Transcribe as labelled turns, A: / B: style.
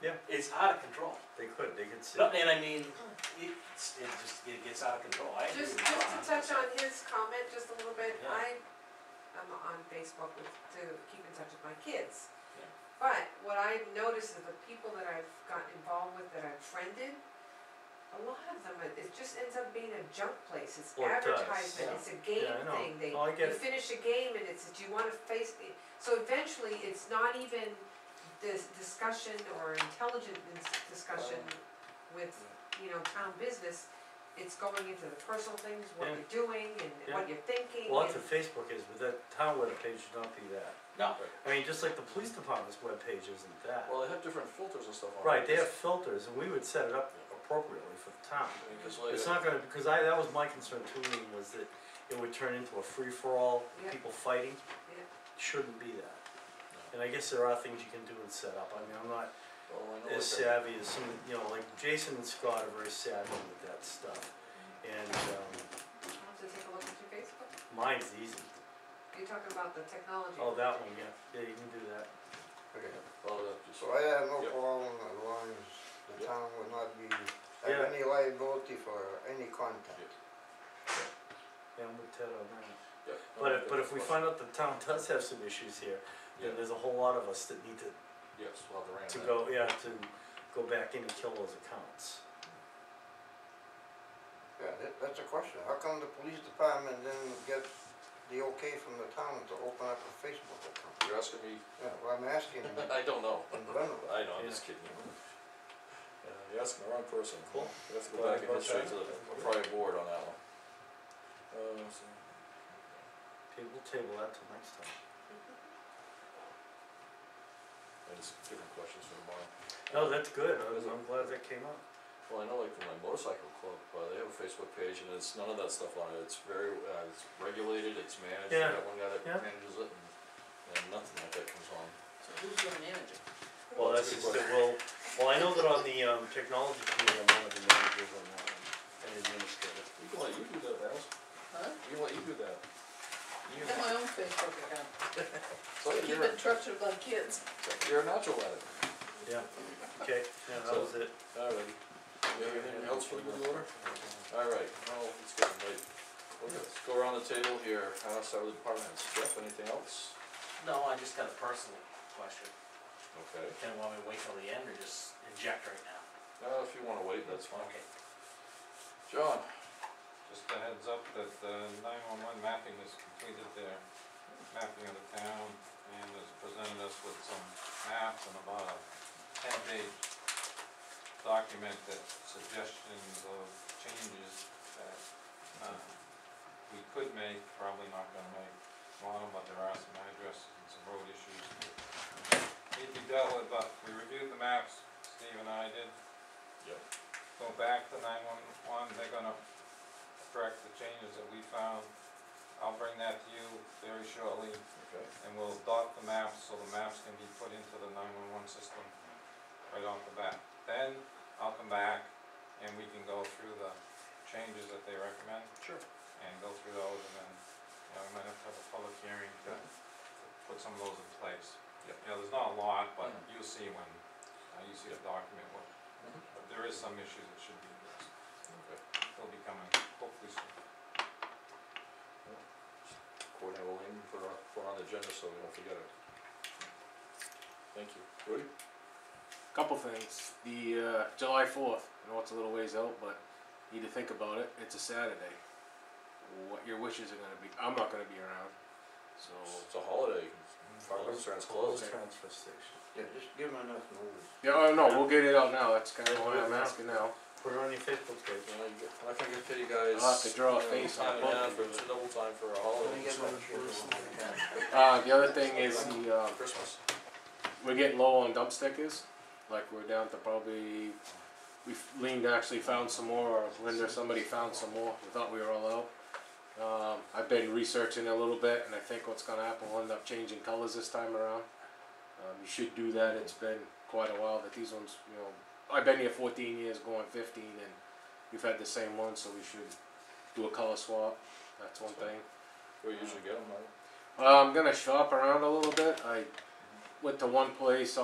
A: Yeah.
B: It's out of control.
A: They could, they could sit.
B: No, And I mean, it's, it just, it gets out of control, I agree
C: Just,
B: with
C: just to
B: Ron.
C: touch on his comment just a little bit,
B: Yeah.
C: I, I'm on Facebook with, to keep in touch with my kids.
B: Yeah.
C: But what I noticed is the people that I've gotten involved with, that I've friended, a lot of them, it it just ends up being a junk place, it's
A: Well, it does,
C: advertisement,
B: yeah.
C: it's a game
A: Yeah, I know.
C: thing, they,
A: Oh, I
C: you
A: get it.
C: finish a game and it's, do you wanna face, the-" so eventually, it's not even this discussion or intelligent dis- discussion with, you know, town business, it's going into the personal things, what
A: Yeah.
C: you're doing and what you're thinking and,
A: Well, that's what Facebook is, but that town webpage should not be that.
B: No,
A: I mean, just like the police department's webpage isn't that.
D: Well, they have different filters and stuff on it.
A: Right, they have filters, and we would set it up appropriately for the town.
D: I mean, 'cause
B: Oh,
A: It's
D: like,
A: not gonna, because I, that was my concern too, Lean, was that it would turn into a free-for-all,
C: Yeah.
A: people fighting.
C: Yeah.
A: Shouldn't be that. And I guess there are things you can do and set up, I mean, I'm not
D: oh,
A: as
D: I know what that-
A: savvy as some, you know, like Jason and Scott are very savvy with that stuff.
C: Mm-hmm.
A: And, um,
C: I'll have to take a look at your Facebook.
A: mine's easy,
C: You're talking about the technology.
A: oh, that one, yeah, yeah, you can do that.
D: Okay, well, that just,
E: So I have no
D: Yep.
E: problem as long as the
D: Yep.
E: town would not be,
A: Yeah.
E: have any liability for any content.
A: Yeah, I'm with Ted on that.
D: yeah.
A: But if, but if we find out the town does have some issues here, then
D: Yeah.
A: there's a whole lot of us that need to
D: Yes, we'll have to
A: to
D: ram that.
A: go, yeah, to go back in and kill those accounts.
E: Yeah, that, that's a question, how come the police department didn't get the okay from the town to open up a Facebook account?
D: You're asking me,
E: Yeah, well, I'm asking in
D: I don't know,
E: general.
D: I know, I'm just kidding you. Uh, You're asking the wrong person.
A: Cool.
D: You have to go
A: Glad
D: back
A: you
D: in
A: brought
D: history
A: that
D: to
A: up.
D: the prior board on that one. Uh, so,
A: Okay, we'll table that till next time.
D: I just, different questions for tomorrow.
A: No, that's good, I was, I'm glad that came up.
D: Well, I know like for my motorcycle club, uh, they have a Facebook page and it's none of that stuff on it, it's very, uh, it's regulated, it's managed, they
A: Yeah,
D: got one guy that
A: yeah.
D: manages it and, and nothing like that comes on.
F: So who's gonna manage it?
A: Well, that's just that, well, well, I know that on the, um, technology committee, I'm one of the managers on that one, and administrator.
D: We can let you do that, Alice,
F: Huh?
D: we can let you do that. You,
F: I got my own Facebook account.
D: so
F: Keep
D: you're,
F: in touch with my kids.
D: you're a natural at it,
A: Yeah, okay, yeah, that was it.
D: alright. You have anything else for the good order? Alright, well, let's go, right, let's go around the table here, uh, start with departments, Jeff, anything else?
B: no, I just got a personal question,
D: Okay,
B: can want me to wait till the end or just inject right now?
D: uh, if you wanna wait, that's fine,
B: Okay.
D: John,
G: Just a heads up that the nine-one-one mapping has completed their mapping of the town and has presented us with some maps and about a ten-page document that suggestions of changes that, uh, we could make, probably not gonna make a lot of them, but there are some addresses and some road issues that need to be dealt with, but we reviewed the maps, Steve and I did,
D: yep,
G: go back to nine-one-one, they're gonna correct the changes that we found. I'll bring that to you very shortly,
D: okay,
G: and we'll dot the maps, so the maps can be put into the nine-one-one system right off the bat. Then, I'll come back, and we can go through the changes that they recommend,
D: sure.
G: and go through those, and then, you know, we might have to have a public hearing to put some of those in place.
D: Yep.
G: You know, there's not a lot, but
D: Mhm.
G: you'll see when, uh, you see the document, what,
D: Mhm.
G: but there is some issues that should be addressed.
D: Okay.
G: They'll be coming hopefully soon.
D: Courtney will aim for, for on the agenda, so we don't forget it. Thank you. Rudy?
H: Couple things. The uh, July 4th, I know it's a little ways out, but need to think about it. It's a Saturday. What your wishes are going to be. I'm not going to be around. So,
D: It's a holiday, farm restaurant's closed.
A: Transfer station.
E: Yeah, just give them enough notice.
H: yeah, oh, no, we'll get it out now. That's kind of why I'm asking now.
A: Put it on your Facebook page.
D: You know, you get- I'm not gonna pay you guys.
H: I'll have to draw a
D: you know,
H: face on
D: time and
H: both
D: half,
H: of you.
D: It's a double time for a
E: Let me
D: holiday,
E: get my shoes on.
H: Uh, the other thing is the, uh,
D: Christmas.
H: we're getting low on dump stickers. Like, we're down to probably. We leaned actually found some more, or Linda, somebody found some more. We thought we were all out. Um, I've been researching a little bit, and I think what's going to happen will end up changing colors this time around. Um, you should do that. It's been quite a while that these ones, you know, I've been here 14 years, going 15, and we've had the same one, so we should do a color swap. That's one thing.
D: We usually get them, right?
H: Uh, I'm gonna shop around a little bit. I went to one place